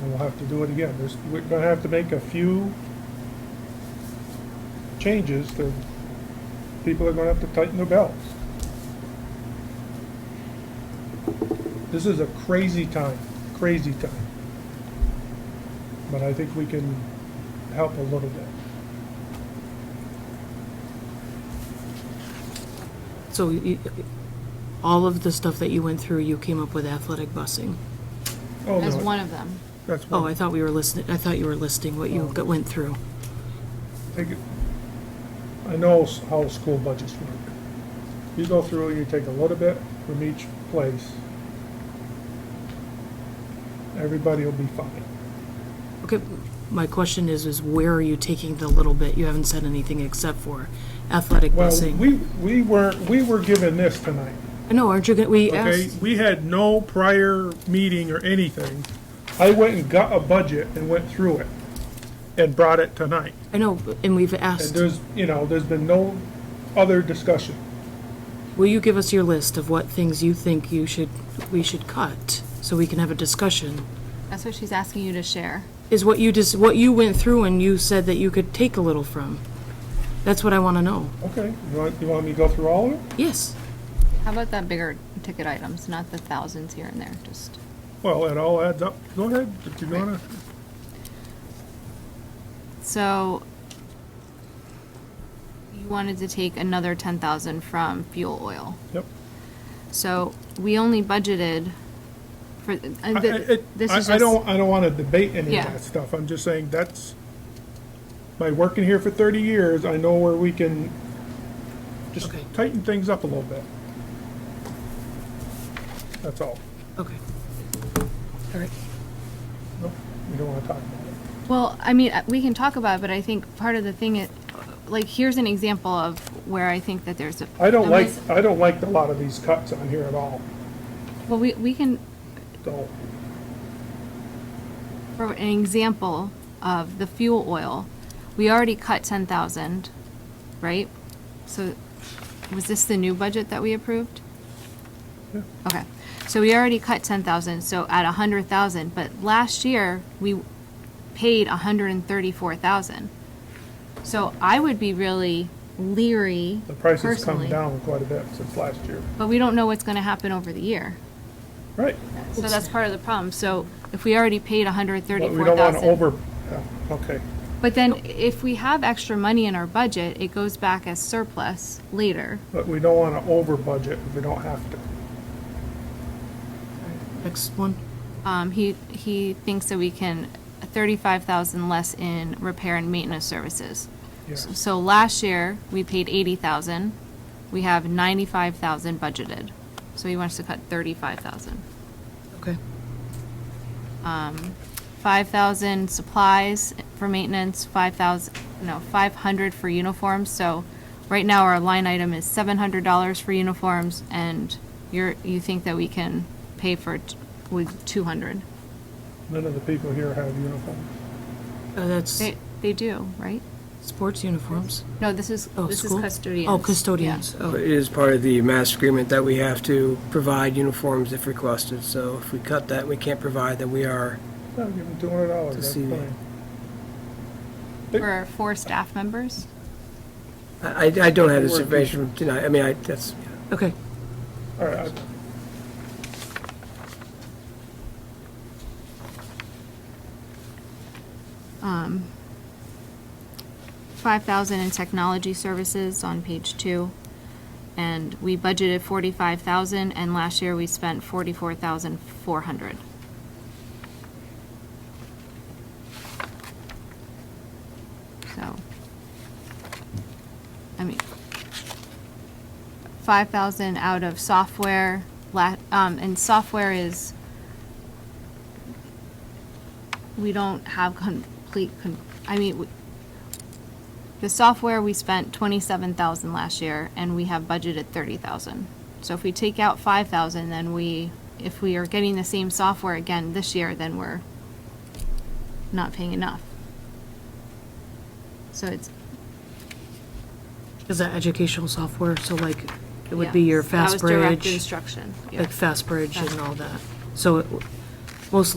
and we'll have to do it again. There's, we're gonna have to make a few changes to, people are gonna have to tighten their belts. This is a crazy time, crazy time. But I think we can help a little bit. So you- all of the stuff that you went through, you came up with athletic busing? Oh, As no, one of them. That's Oh, one. I thought we were listening, I thought you were listing what you Oh. got- went through. Take it- I know s- how school budgets work. You go through, you take a little bit from each place. Everybody will be fine. Okay, my question is, is where are you taking the little bit? You haven't said anything except for athletic Well, busing. we, we weren't, we were given this tonight, I know, aren't you, gonna- we okay? asked, We had no prior meeting or anything. I went and got a budget and went through it and brought it tonight. I know, and we've And asked, there's, you know, there's been no other discussion. will you give us your list of what things you think you should, we should cut? So we can have a discussion. That's what she's asking you to share. Is what you just, what you went through and you said that you could take a little from? That's what I want to know. Okay, you want, you want me to go through all of it? Yes. How about that bigger ticket items, not the thousands here and there, just. Well, it all adds up. Go ahead, if you wanna. So you wanted to take another ten thousand from fuel oil. Yep. So we only budgeted for, uh, I- I- th- it- this I- is I just, don't, I don't wanna debate any of Yeah. that stuff. I'm just saying that's, by working here for thirty years, I know where we can just Okay. tighten things up a little bit. That's all. Okay. All right. Nope, We don't wanna talk about it. well, I mean, uh, we can talk about it, but I think part of the thing, is, like, here's an example of where I think that there's a. I don't a like, mis- I don't like a lot of these cuts on here at all, Well, we, we can, so. For an example of the fuel oil, we already cut ten thousand, right? So, was this the new budget that we approved? Yeah. Okay, so we already cut ten thousand, so at a hundred thousand, but last year, we paid a hundred and thirty-four thousand. So I would be really leery The prices come personally, down quite a bit since last year. but we don't know what's gonna happen over the year. Right. So that's part of the problem, so if we already paid a hundred and But thirty-four we thousand. don't wanna over, yeah, okay. But then if we have extra money in our budget, it goes back as surplus later. But we don't wanna over budget if we don't have to. Next one. Um, he, he thinks that we can thirty-five thousand less in repair and maintenance services. Yes. So last year, we paid eighty thousand. We have ninety-five thousand budgeted. So he wants to cut thirty-five thousand. Okay. Five thousand supplies for maintenance, five thousand, no, five hundred for uniforms, so right now our line item is seven hundred dollars for uniforms, and you're, you think that we can pay for, t- with two hundred? None of the people here have uniforms. Uh, that's They, they do, right? sports uniforms. No, this is, Oh, this is school? custodians. Oh, custodians. Yeah. Oh, But It is part of the mass agreement that we have to provide uniforms if requested, so if we cut that, and we can't provide, then we are, No, give them two hundred dollars, To that's see. fine. For our four staff members? I, I don't have this information tonight, I mean, I, that's, okay. All right, five thousand in technology services on page two. And we budgeted forty-five thousand, and last year we spent forty-four thousand four hundred. So. I mean. Five thousand out of software, la, um, and software is. We don't have complete, con- I mean, we- the software, we spent twenty-seven thousand last year, and we have budgeted thirty thousand. So if we take out five thousand, then we, if we are getting the same software again this year, then we're not paying enough. So it's, Is that educational software? So like, it would yeah. be your That was direct FastBridge, instruction. yeah. like FastBridge and all that. So it w- most